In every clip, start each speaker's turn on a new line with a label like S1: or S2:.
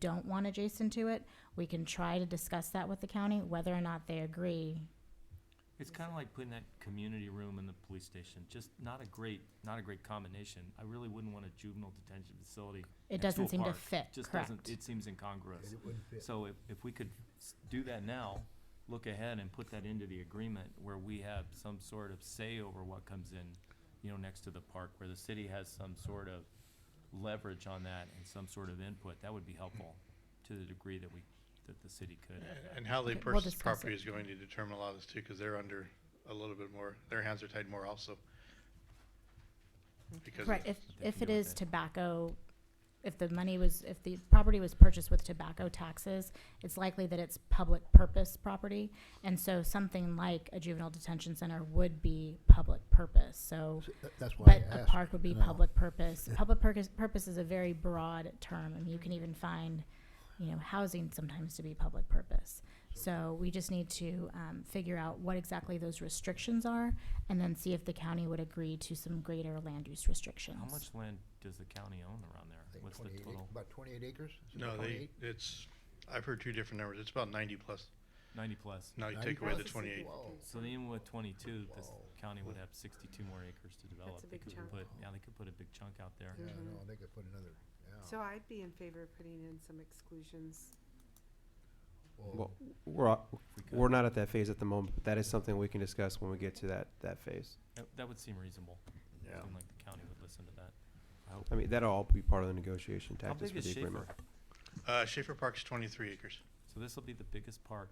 S1: don't want adjacent to it, we can try to discuss that with the county, whether or not they agree.
S2: It's kind of like putting that community room in the police station, just not a great, not a great combination. I really wouldn't want a juvenile detention facility.
S1: It
S2: next
S1: doesn't
S2: a
S1: seem to
S2: park.
S1: fit,
S2: Just doesn't,
S1: correct?
S2: it seems incongruous.
S3: And it wouldn't fit.
S2: So if, if we could s- do that now, look ahead and put that into the agreement where we have some sort of say over what comes in, you know, next to the park, where the city has some sort of leverage on that and some sort of input, that would be helpful to the degree that we, that the city could.
S4: And how they
S1: Okay, we'll
S4: purchase
S1: discuss
S4: property
S1: it.
S4: is going to determine a lot of this too, because they're under a little bit more, their hands are tied more also. Because
S1: Right,
S4: of-
S1: if,
S2: They
S1: if
S2: can
S1: it
S2: do with
S1: is
S2: it.
S1: tobacco, if the money was, if the property was purchased with tobacco taxes, it's likely that it's public purpose property. And so something like a juvenile detention center would be public purpose, so.
S3: So tha- That's why
S1: But
S3: I
S1: a
S3: asked.
S1: park would be
S3: now.
S1: public purpose. Public purpose, purpose is a very broad term, and you can even find, you know, housing sometimes to be public purpose. So we just need to, um, figure out what exactly those restrictions are, and then see if the county would agree to some greater land use restrictions.
S2: How much land does the county own around
S3: I
S2: there?
S3: think
S2: What's the
S3: 28 ac-
S2: total?
S3: About twenty-eight acres? Is it
S4: No, they,
S3: 28?
S4: it's, I've heard two different numbers. It's about ninety plus.
S2: Ninety plus.
S4: Now you
S3: 90
S4: take away the
S3: plus?
S4: twenty-eight.
S3: Whoa.
S2: So even with twenty-two, this
S3: Whoa.
S2: county would have sixty-two more acres to develop.
S5: a
S2: They
S5: big
S2: could
S5: chunk.
S2: put, yeah, they could put a big chunk out there.
S3: Yeah,
S5: Mhm.
S3: no, they could put another,
S5: So
S3: yeah.
S2: Oh.
S5: I'd be in favor of putting in some exclusions.
S3: Well,
S6: Well, we're, a-
S2: if we could.
S6: we're not at that phase at the moment, but that is something we can discuss when we get to that, that phase.
S2: That- That would seem reasonable. Seem like the county would listen to that.
S6: I mean, that'll all be part of the negotiation
S2: How
S6: tactics
S2: big
S6: for
S2: is
S6: the
S2: Schaefer?
S6: agreement.
S4: Uh, Schaefer Park's twenty-three acres,
S2: So this will be the biggest park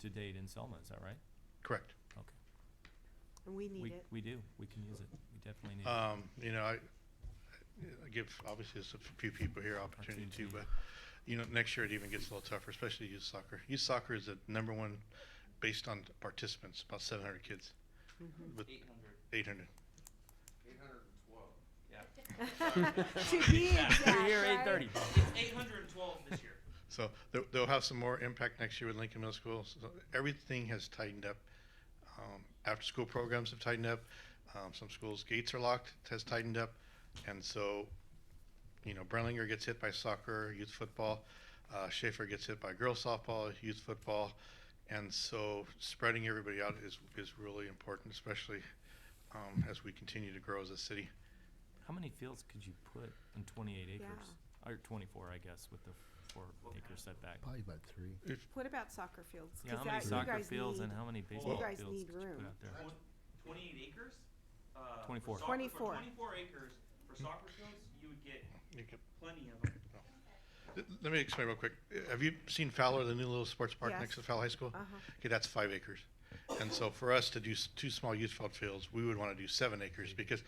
S2: to date in Selma, is that right?
S4: correct.
S2: Okay.
S5: And we need
S2: We,
S5: it.
S2: we do, we can use it. We definitely need it.
S4: Um, you know, I, I give, obviously, there's a few people here opportunity too, but, you know, next year it even gets a little tougher, especially youth soccer. Youth soccer is the number one, based on participants, about seven hundred kids.
S3: Mm-hmm.
S4: With eight hundred.
S5: To be exact,
S2: We're here
S5: right?
S2: eight thirty.
S4: So they'll, they'll have some more impact next year with Lincoln Middle School. So everything has tightened up. Um, after-school programs have tightened up. Um, some schools' gates are locked, has tightened up. And so, you know, Brenlinger gets hit by soccer, youth football. Uh, Schaefer gets hit by girls softball, youth football. And so spreading everybody out is, is really important, especially um, as we continue to grow as a city.
S2: How many fields could you put in twenty-eight acres? Or twenty-four, I guess, with the four acre setback.
S3: probably about three.
S5: What about soccer fields?
S2: Yeah,
S5: 'Cause
S2: how
S5: that-
S2: many
S5: you
S2: soccer
S5: guys
S2: fields and
S5: need-
S2: how many baseball
S5: guys
S2: fields
S5: need
S2: could you
S5: room.
S2: put out there?
S7: Twenty-eight acres? Uh, for
S2: 24.
S7: soccer- for
S5: 24.
S7: Twenty-four acres for soccer fields, you would get
S4: You could-
S7: plenty of them.
S4: Th- Let me explain real quick. Uh, Have you seen Fowler, the new little sports park
S5: Yes.
S4: next to Fowler High School?
S5: Uh-huh.
S4: Okay, that's five acres. And so for us to do s- two small youth football fields, we would want to do seven acres because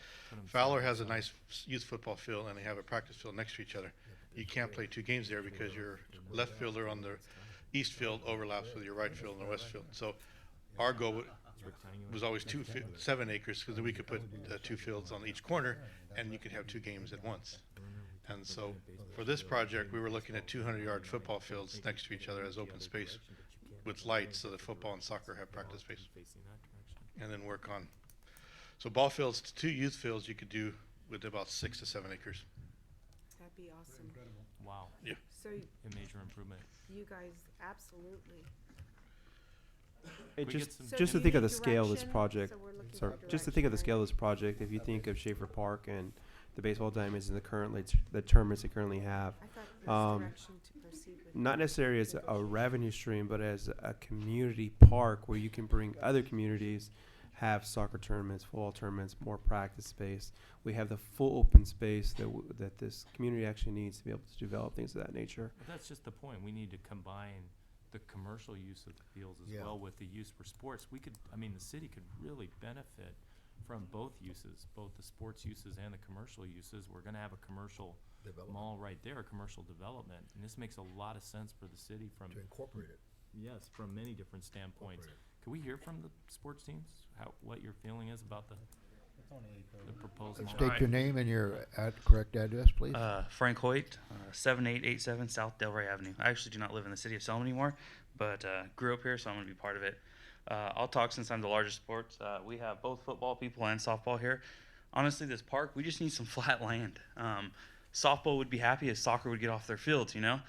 S4: Fowler has a nice s- youth football field and they have a practice field next to each other. You can't play two games there because your left fielder on the east field overlaps with your right field and the west field. So our goal wa- was always two, fi- seven acres because we could put uh, two fields on each corner and you could have two games at once. And so for this project, we were looking at two hundred yard football fields next to each other as open space with lights so that football and soccer have practice space
S2: Facing that direction.
S4: and then work on. So ball fields, t- two youth fields you could do with about six to seven acres.
S5: That'd be awesome.
S2: Wow,
S5: So
S2: a major improvement.
S5: you guys, absolutely.
S6: And
S2: We
S6: just,
S2: get some-
S5: So
S6: just
S5: do
S6: to
S5: we
S6: think of
S5: need
S6: the scale of this
S5: direction?
S6: project,
S5: So we're looking
S6: sorry,
S5: for
S6: just to think of the
S5: direction,
S6: scale of this project, if you think of Schaefer Park and the baseball diamonds and the currently, the tournaments they currently have,
S5: right? I thought there was
S6: um,
S5: direction to proceed with.
S6: not necessarily as a revenue stream, but as a community park where you can bring other communities, have soccer tournaments, football tournaments, more practice space. We have the full open space that w- that this community actually needs to be able to develop things of that nature.
S2: But that's just the point. We need to combine the commercial use of the fields as
S3: Yeah.
S2: well with the use for sports. We could, I mean, the city could really benefit from both uses, both the sports uses and the commercial uses. We're gonna have a commercial
S3: Development
S2: mall right there, a commercial development, and this makes a lot of sense for the city from,
S3: to incorporate it.
S2: yes, from many different standpoints.
S3: Incorporate
S2: Can we hear from the sports teams, how, what your feeling is about the, the proposed mall?
S3: State your name and your ad- correct address, please.
S7: Uh, Frank Hoyt, uh, 7887 South Delray Avenue. I actually do not live in the city of Selma anymore, but uh, grew up here, so I'm going to be part of it. Uh, I'll talk since I'm the largest sports. Uh, we have both football people and softball here. Honestly, this park, we just need some flat land. Um, softball would be happy if soccer would get off their fields, you know?